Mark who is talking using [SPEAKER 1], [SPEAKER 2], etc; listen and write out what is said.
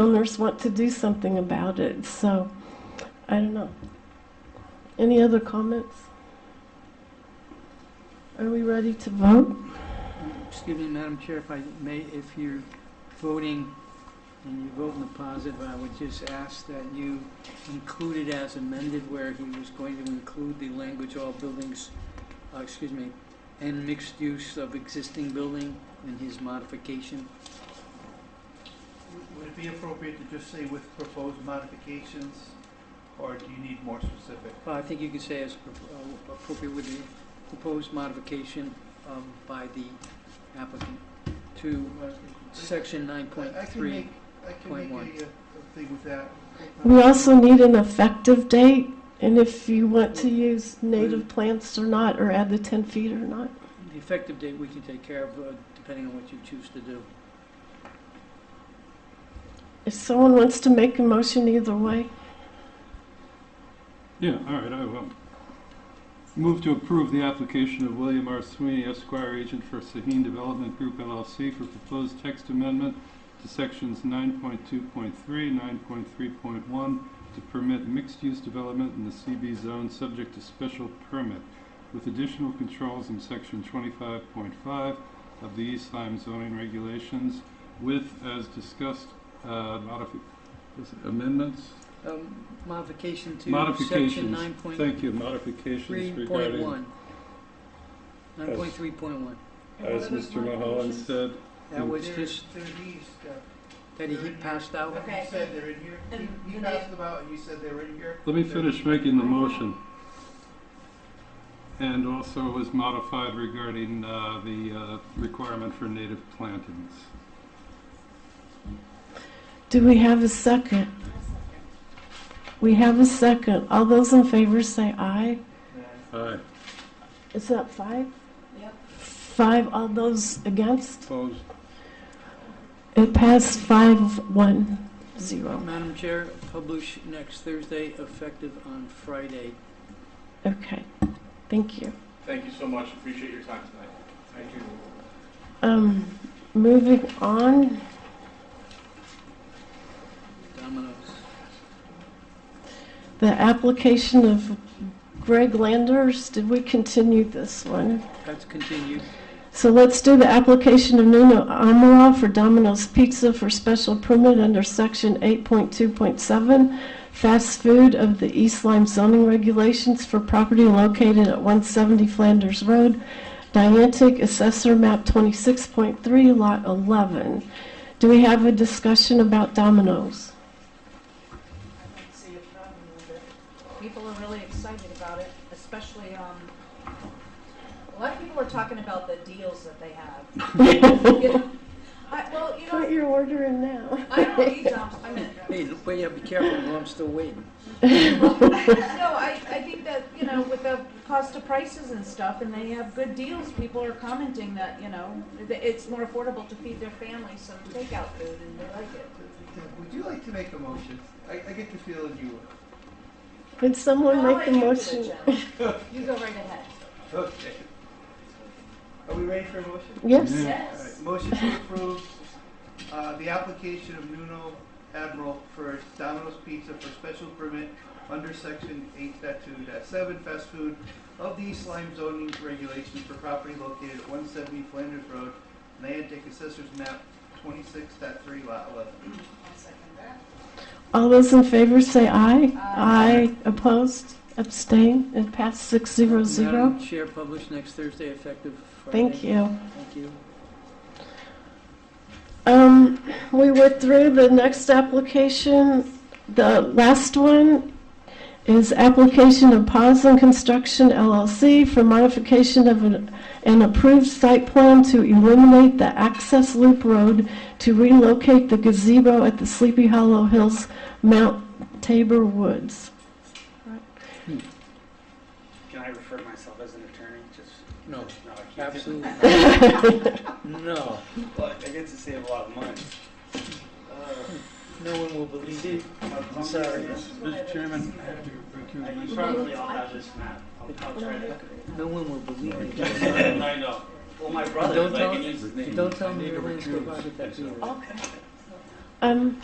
[SPEAKER 1] owners want to do something about it. So, I don't know. Any other comments? Are we ready to vote?
[SPEAKER 2] Excuse me, Madam Chair, if I may, if you're voting and you vote in the positive, I would just ask that you include it as amended where he was going to include the language, all buildings, uh, excuse me, and mixed use of existing building in his modification.
[SPEAKER 3] Would it be appropriate to just say with proposed modifications, or do you need more specific?
[SPEAKER 2] Well, I think you could say as appro- uh, appropriate with the proposed modification um, by the applicant to section nine point
[SPEAKER 3] I can
[SPEAKER 2] three.
[SPEAKER 3] make, I can
[SPEAKER 2] point
[SPEAKER 3] make
[SPEAKER 2] one.
[SPEAKER 3] a, uh, a thing with that.
[SPEAKER 1] We also need an effective date, and if you want to use native plants or not, or add the 10 feet or not.
[SPEAKER 2] The effective date we can take care of, uh, depending on what you choose to do.
[SPEAKER 1] If someone wants to make a motion either way,
[SPEAKER 4] Yeah, all right, I will. Move to approve the application of William R. Sweeney Esquire, agent for Sahin Development Group LLC for proposed text amendment to sections 9.2.3, 9.3.1 to permit mixed-use development in the CB zone subject to special permit with additional controls in section 25.5 of the East Lyme zoning regulations with, as discussed, uh, modifi- is it amendments?
[SPEAKER 2] Um, Modification to section
[SPEAKER 4] Modifications.
[SPEAKER 2] nine point
[SPEAKER 4] Thank you, modifications
[SPEAKER 2] three point
[SPEAKER 4] regarding...
[SPEAKER 2] one. Nine point three point one.
[SPEAKER 4] As Mr. Mahalan said,
[SPEAKER 2] That was
[SPEAKER 3] They're-
[SPEAKER 2] just,
[SPEAKER 3] They're these, uh,
[SPEAKER 2] that he passed out.
[SPEAKER 3] you said they're in here,
[SPEAKER 5] And
[SPEAKER 3] you
[SPEAKER 5] do they-
[SPEAKER 3] passed them out, and you said they were in here.
[SPEAKER 4] let me finish making the motion. And also it was modified regarding uh, the uh, requirement for native plantings.
[SPEAKER 1] do we have a second? We have a second. All those in favor say aye.
[SPEAKER 4] Aye.
[SPEAKER 1] Is that five?
[SPEAKER 5] Yep.
[SPEAKER 1] Five, all those against?
[SPEAKER 4] Opposed?
[SPEAKER 1] It passed five, one, zero.
[SPEAKER 2] Madam Chair, publish next Thursday, effective on Friday.
[SPEAKER 1] Okay, thank you.
[SPEAKER 3] Thank you so much, appreciate your time tonight. Thank you.
[SPEAKER 1] Um, moving on.
[SPEAKER 2] Dominoes.
[SPEAKER 1] The application of Greg Landers, did we continue this one?
[SPEAKER 2] That's continued.
[SPEAKER 1] So let's do the application of Nuno Amaral for Domino's Pizza for special permit under section 8.2.7, fast food of the East Lyme zoning regulations for property located at 170 Flanders Road, Niantic Assessor Map 26.3, Lot 11. Do we have a discussion about Domino's?
[SPEAKER 5] I don't see a problem with it. People are really excited about it, especially, um, a lot of people are talking about the deals that they have. I, well, you
[SPEAKER 1] What
[SPEAKER 5] know,
[SPEAKER 1] you're ordering now?
[SPEAKER 5] I don't eat dumps, I mean,
[SPEAKER 2] Hey, wait, yeah, be careful, no, I'm still waiting.
[SPEAKER 5] no, I, I think that, you know, with the cost of prices and stuff, and they have good deals, people are commenting that, you know, that it's more affordable to feed their families some takeout food, and they like it.
[SPEAKER 3] Would you like to make a motion? I, I get the feeling you would.
[SPEAKER 1] Would someone
[SPEAKER 5] I'll
[SPEAKER 1] make the
[SPEAKER 5] let you do it,
[SPEAKER 1] motion?
[SPEAKER 5] Jen. You go right ahead.
[SPEAKER 3] Okay. Are we ready for a motion?
[SPEAKER 1] Yes?
[SPEAKER 4] Yeah.
[SPEAKER 3] All
[SPEAKER 5] Yes.
[SPEAKER 3] right, Motion to approve uh, the application of Nuno Admiral for Domino's Pizza for special permit under section 8.2.7 fast food of the East Lyme zoning regulations for property located at 170 Flanders Road, Niantic Assessor's Map 26.3 Lot 11.
[SPEAKER 5] I'll second that.
[SPEAKER 1] All those in favor say aye.
[SPEAKER 5] Aye.
[SPEAKER 1] Opposed? Abstain? It passed six zero zero.
[SPEAKER 2] Madam Chair, publish next Thursday, effective Friday.
[SPEAKER 1] Thank you.
[SPEAKER 2] Thank you.
[SPEAKER 1] Um, we went through the next application. The last one is application of Pause and Construction LLC for modification of an, an approved site plan to eliminate the access loop road to relocate the gazebo at the Sleepy Hollow Hills Mount Tabor Woods.
[SPEAKER 6] Can I refer to myself as an attorney? Just,
[SPEAKER 2] No,
[SPEAKER 6] no, I can't.
[SPEAKER 2] absolutely not. No,
[SPEAKER 6] Look, I get to save a lot of money.
[SPEAKER 2] no one will believe it.
[SPEAKER 6] I'm
[SPEAKER 2] Uh, sorry.
[SPEAKER 6] Mr. Chairman, I have to recuse myself. Probably all have this map. I'll- I'll try to.
[SPEAKER 2] No one will believe it.
[SPEAKER 6] I know. Well, my brother,
[SPEAKER 2] Don't
[SPEAKER 6] if I
[SPEAKER 2] tell-
[SPEAKER 6] can use his name.
[SPEAKER 2] Don't tell me your landscape architect either.
[SPEAKER 1] Um,